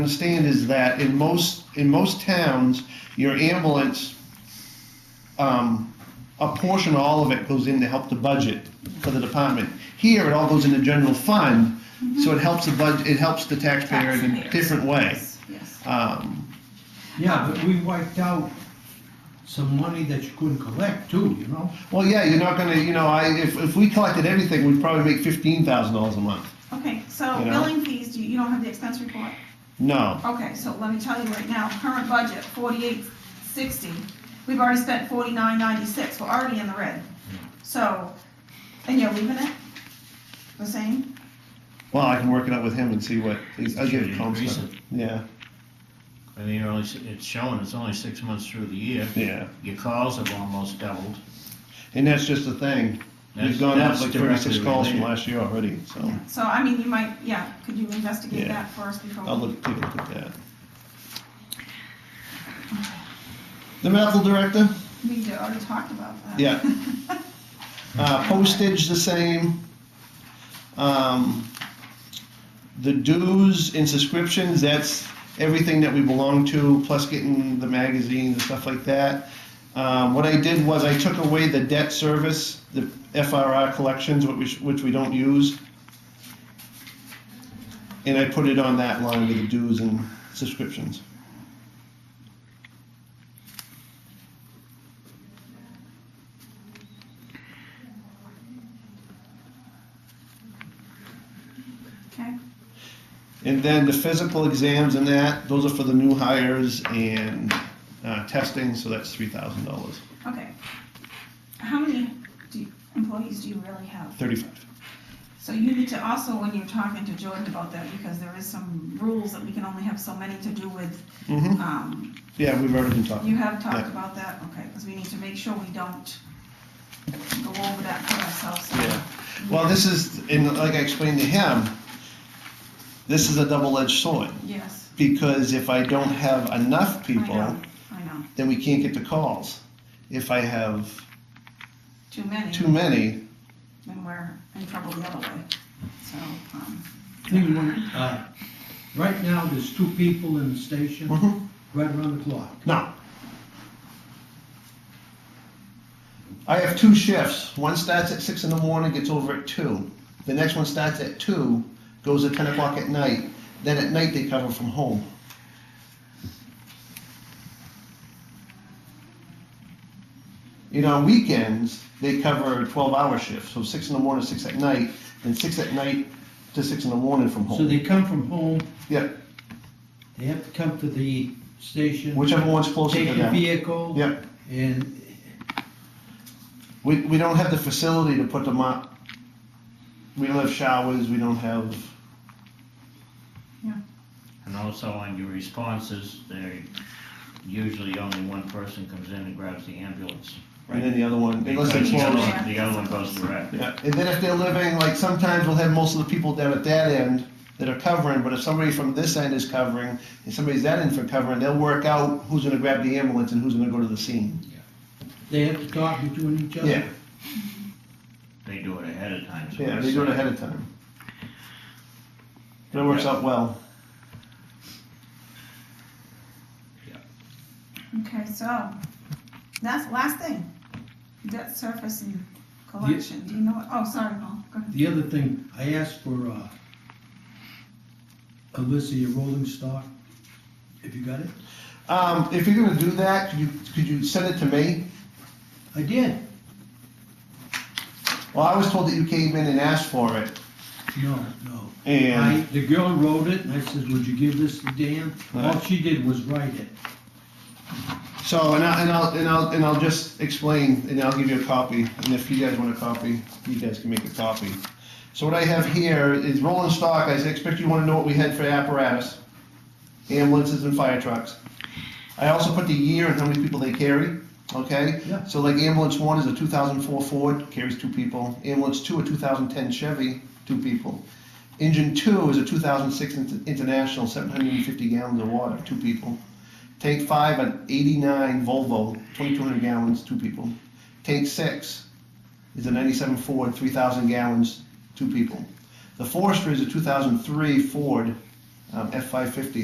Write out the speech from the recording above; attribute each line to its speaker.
Speaker 1: understand is that in most, in most towns, your ambulance, um, a portion, all of it goes in to help the budget for the department. Here, it all goes in the general fund, so it helps the budget, it helps the taxpayer in a
Speaker 2: Taxpayers.
Speaker 1: different way.
Speaker 2: Yes, Yes,
Speaker 1: Um,
Speaker 3: Yeah, but we wiped out some money that you couldn't collect too, you know?
Speaker 1: Well, yeah, you're not gonna, you know, I, if, if we collected everything, we'd probably make fifteen thousand dollars a month.
Speaker 2: okay, so
Speaker 1: You know?
Speaker 2: billing fees, do you, you don't have the expense report?
Speaker 1: No,
Speaker 2: Okay, so let me tell you right now, current budget, forty-eight sixty, we've already spent forty-nine ninety-six, we're already in the red.
Speaker 1: Hmm.
Speaker 2: So, and you're leaving it the same?
Speaker 1: well, I can work it out with him and see what, I'll give it to him.
Speaker 4: Increase it.
Speaker 1: Yeah,
Speaker 4: I mean, you're only, it's showing, it's only six months through the year.
Speaker 1: yeah,
Speaker 4: Your calls have almost doubled.
Speaker 1: and that's just the thing,
Speaker 4: That's-
Speaker 1: we've gone up
Speaker 4: that's
Speaker 1: like thirty-six
Speaker 4: directly
Speaker 1: calls from
Speaker 4: related.
Speaker 1: last year already, so
Speaker 2: Yeah. So, I mean, you might, yeah, could you investigate
Speaker 1: Yeah.
Speaker 2: that for us before?
Speaker 1: I'll look, take a look at that. The medical director,
Speaker 2: We did- already talked about that.
Speaker 1: Yeah. uh, postage the same. Um, the dues and subscriptions, that's everything that we belong to, plus getting the magazines and stuff like that. Um, what I did was I took away the debt service, the FRR collections, which we, sh- which we don't use. And I put it on that line with the dues and subscriptions.
Speaker 2: Okay,
Speaker 1: And then the physical exams and that, those are for the new hires and uh, testing, so that's three thousand dollars,
Speaker 2: okay. How many do you- employees do you really have?
Speaker 1: thirty-five.
Speaker 2: So you need to also, when you're talking to Jordan about that, because there is some rules that we can only have so many to do with,
Speaker 1: Mm-hmm.
Speaker 2: um,
Speaker 1: Yeah, we've already been
Speaker 2: you
Speaker 1: talking.
Speaker 2: have talked
Speaker 1: Yeah.
Speaker 2: about that, okay, because we need to make sure we don't go over that for ourselves.
Speaker 1: Yeah. Well, this is, and like I explained to him, this is a double-edged sword
Speaker 2: Yes,
Speaker 1: because if I don't have enough
Speaker 2: I
Speaker 1: people,
Speaker 2: know, I know,
Speaker 1: then we can't get the calls. If I have
Speaker 2: too many,
Speaker 1: too many,
Speaker 2: then we're in trouble the other way, so, um,
Speaker 3: Thing when, uh, right now, there's two people in the station,
Speaker 1: Mhm.
Speaker 3: right around the clock.
Speaker 1: no. I have two shifts. One starts at six in the morning, gets over at two. The next one starts at two, goes at ten o'clock at night. Then at night they cover from home. You know, on weekends, they cover twelve-hour shifts, so six in the morning, six at night, and six at night to six in the morning from
Speaker 3: So
Speaker 1: home.
Speaker 3: they come from home,
Speaker 1: Yeah,
Speaker 3: they have to come to the station.
Speaker 1: whichever one's closer to
Speaker 3: Take the
Speaker 1: them.
Speaker 3: vehicle.
Speaker 1: Yeah.
Speaker 3: And
Speaker 1: We, we don't have the facility to put them up. We don't have showers, we don't have,
Speaker 4: And also on your responses, they, usually only one person comes in and grabs the ambulance.
Speaker 1: and then the other one, unless they're
Speaker 4: Because The other
Speaker 1: close.
Speaker 4: one- the other one goes direct.
Speaker 1: Yeah, and then if they're living, like, sometimes we'll have most of the people down at that end that are covering, but if somebody from this end is covering, and somebody's that end for covering, they'll work out who's gonna grab the ambulance and who's gonna go to the scene.
Speaker 3: they have to talk between each other.
Speaker 1: Yeah,
Speaker 4: They do it ahead of time. so
Speaker 1: yeah,
Speaker 4: it's-
Speaker 1: they do it ahead of time. That works out well.
Speaker 2: okay, so, that's the last thing, debt surface and collection, do you know, what- oh, sorry, Paul, go ahead.
Speaker 3: The other thing, I asked for, uh, Alyssa, your rolling stock. Have you got it?
Speaker 1: Um, if you're gonna do that, could you, could you send it to me?
Speaker 3: I did.
Speaker 1: Well, I was told that you came in and asked for it,
Speaker 3: No, no.
Speaker 1: and.
Speaker 3: I, the girl wrote it, and I says, would you give this to Dan? All
Speaker 1: Right.
Speaker 3: she did was write it.
Speaker 1: So, and I'll, and I'll, and I'll, and I'll just explain, and I'll give you a copy, and if you guys want a copy, you guys can make a copy. So what I have here is rolling stock, I expect you wanna know what we had for apparatus, ambulances and fire trucks. I also put the year and how many people they carry, okay?
Speaker 3: Yeah.
Speaker 1: So like ambulance one is a two thousand four Ford, carries two people, ambulance two, a two thousand ten Chevy, two people. Engine two is a two thousand six International, seven hundred and fifty gallons of water, two people. Tank five, an eighty-nine Volvo, twenty-two hundred gallons, two people. Tank six is a ninety-seven Ford, three thousand gallons, two people. The Forester is a two thousand three Ford, um, F five fifty,